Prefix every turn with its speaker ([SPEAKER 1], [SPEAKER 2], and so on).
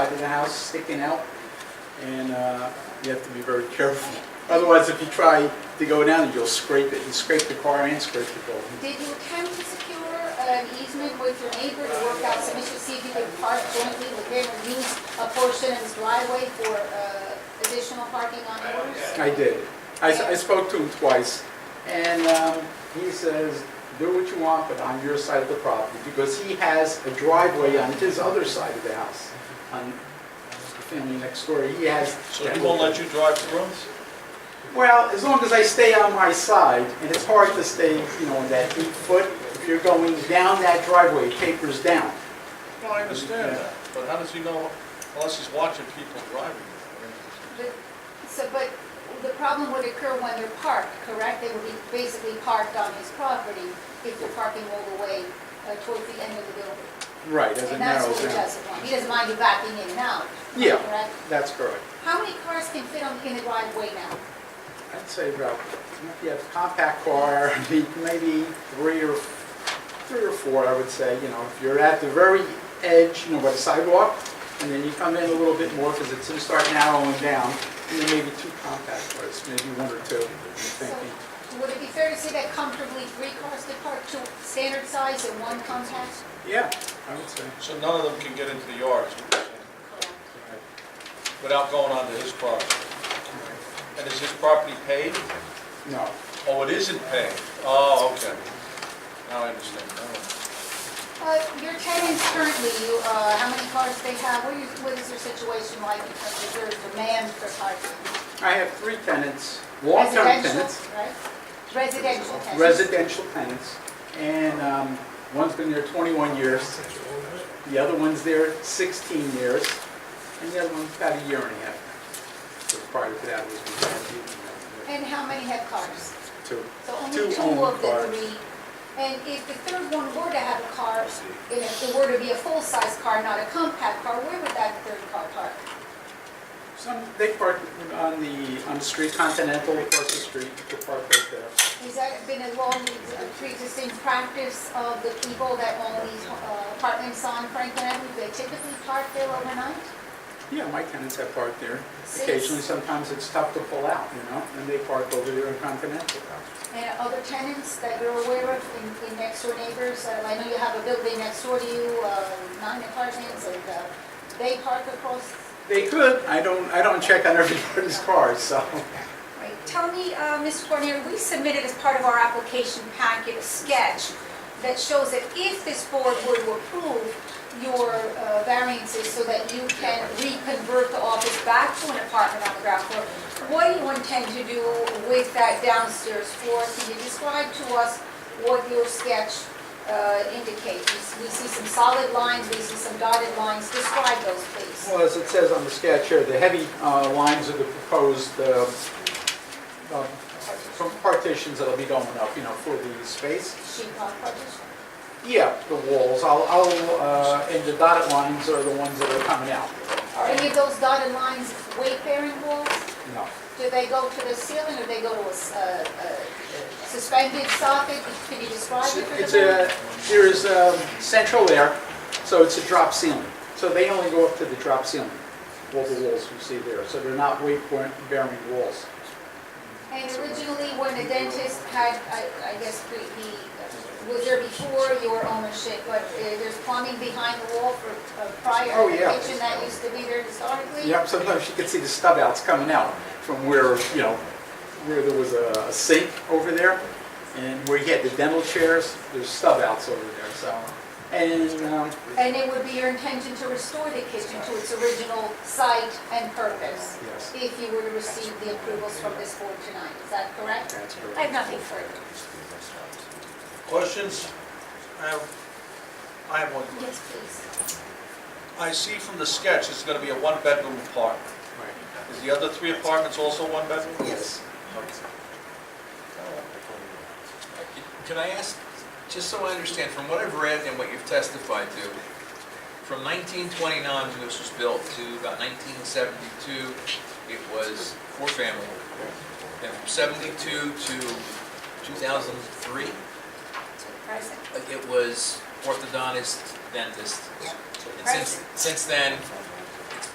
[SPEAKER 1] house sticking out, and uh, you have to be very careful. Otherwise, if you try to go down, you'll scrape it, you scrape the car and scrape the building.
[SPEAKER 2] Did you attempt to secure an easement with your neighbor to work out some issues, see if you could park jointly with him or use a portion of his driveway for uh, additional parking on yours?
[SPEAKER 1] I did. I s- I spoke to him twice, and um, he says, "Do what you want, but on your side of the property," because he has a driveway on his other side of the house, on the family next door. He has...
[SPEAKER 3] So he won't let you drive through?
[SPEAKER 1] Well, as long as I stay on my side, and it's hard to stay, you know, on that eight foot, if you're going down that driveway, it tapers down.
[SPEAKER 3] Well, I understand that, but how does he know, unless he's watching people driving?
[SPEAKER 2] But- So, but the problem would occur when they're parked, correct? They would be basically parked on his property if they're parking all the way uh, towards the end of the building.
[SPEAKER 1] Right, as it
[SPEAKER 2] And that's
[SPEAKER 1] narrows
[SPEAKER 2] what he
[SPEAKER 1] down.
[SPEAKER 2] doesn't want. He doesn't mind you backing in and out,
[SPEAKER 1] Yeah,
[SPEAKER 2] correct?
[SPEAKER 1] that's correct.
[SPEAKER 2] How many cars can fit on, in the driveway now?
[SPEAKER 1] I'd say about, if you have a compact car, maybe three or, three or four, I would say, you know, if you're at the very edge, you know, by the sidewalk, and then you come in a little bit more, because it's going to start narrowing down, and then maybe two compact cars, maybe one or two, I'm thinking.
[SPEAKER 2] Would it be fair to say that comfortably three cars could park, two standard size and one compact?
[SPEAKER 1] Yeah, I would say.
[SPEAKER 3] So none of them can get into the yard, is what you're saying, without going onto his property? And is his property paid?
[SPEAKER 1] No.
[SPEAKER 3] Oh, it isn't paid? Oh, okay. Now I understand. All
[SPEAKER 2] Uh, Your tenants currently, you, uh, how many cars they have, what is- what is their situation like in terms of their demand for parking?
[SPEAKER 1] I have three tenants, long-term
[SPEAKER 2] Residential,
[SPEAKER 1] tenants,
[SPEAKER 2] right? Residential tenants?
[SPEAKER 1] residential tenants, and um, one's been there 21 years, the other one's there 16 years, and the other one's about a year and a half. So Prior to that was we had
[SPEAKER 2] And how many have cars?
[SPEAKER 1] two.
[SPEAKER 2] So
[SPEAKER 1] Two
[SPEAKER 2] only two
[SPEAKER 1] owned
[SPEAKER 2] of the
[SPEAKER 1] cars.
[SPEAKER 2] three. And if the third one were to have a car, if it were to be a full-size car, not a compact car, where would that third car park?
[SPEAKER 1] Some, they park on the, on the street, Continental across the street, they park right there.
[SPEAKER 2] Has that uh, been a long, a pre-existing practice of the people that own these uh, apartments on Franklin Avenue? They typically park there overnight?
[SPEAKER 1] Yeah, my tenants have parked there.
[SPEAKER 2] Six.
[SPEAKER 1] Occasionally, sometimes it's tough to pull out, you know, and they park over there on Continental.
[SPEAKER 2] And other tenants that you're aware of in, in next door neighbors? Uh, I know you have a building next door to you, uh, nine apartments, and uh, they park across.
[SPEAKER 1] They could, I don't, I don't check on everybody's cars, so.
[SPEAKER 4] Right, tell me, uh, Mr. Guarnieri, we submitted as part of our application packet a sketch that shows that if this board were to approve your uh, variances so that you can reconvert the office back to an apartment on the ground floor, what do you intend to do with that downstairs floor? Can you describe to us what your sketch uh, indicates? We see some solid lines, we see some dotted lines, describe those, please.
[SPEAKER 1] Well, as it says on the sketch here, the heavy uh, lines are the proposed uh, um, from partitions that'll be going up, you know, for the space.
[SPEAKER 2] Sheet rock partition?
[SPEAKER 1] Yeah, the walls, I'll, I'll, uh, and the dotted lines are the ones that are coming out.
[SPEAKER 2] Are any of those dotted lines weight-bearing walls?
[SPEAKER 1] No,
[SPEAKER 2] Do they go to the ceiling or they go to a s- a- a suspended socket? Can you describe it for the...
[SPEAKER 1] It's a, there's um, central air, so it's a drop ceiling. So they only go up to the drop ceiling, all the walls you see there. So they're not weight-bearing walls.
[SPEAKER 2] And originally, when the dentist had, I I guess, the, the- was there before your ownership, but uh, there's plumbing behind the wall for uh, prior
[SPEAKER 1] Oh, yeah.
[SPEAKER 2] kitchen that used to be there historically?
[SPEAKER 1] Yep, sometimes you can see the stub outs coming out from where, you know, where there was a a sink over there, and where you had the dental chairs, there's stub outs over there, so. And, um,
[SPEAKER 2] And it would be your intention to restore the kitchen to its original site and purpose?
[SPEAKER 1] Yes.
[SPEAKER 2] If you were to receive the approvals from this board tonight, is that correct?
[SPEAKER 1] That's correct.
[SPEAKER 2] I have nothing further.
[SPEAKER 3] right. Questions? I have, I have one. question.
[SPEAKER 2] Yes, please.
[SPEAKER 3] I see from the sketch, it's gonna be a one-bedroom apartment.
[SPEAKER 1] right,
[SPEAKER 3] Is the other three apartments also one bedroom?
[SPEAKER 1] yes,
[SPEAKER 5] Can I ask, just so I understand, from what I've read and what you've testified to, from 1929, when this was built, to about 1972, it was four family. And from 72 to 2003,
[SPEAKER 4] To the present.
[SPEAKER 5] it was orthodontist, dentist. And since, since then,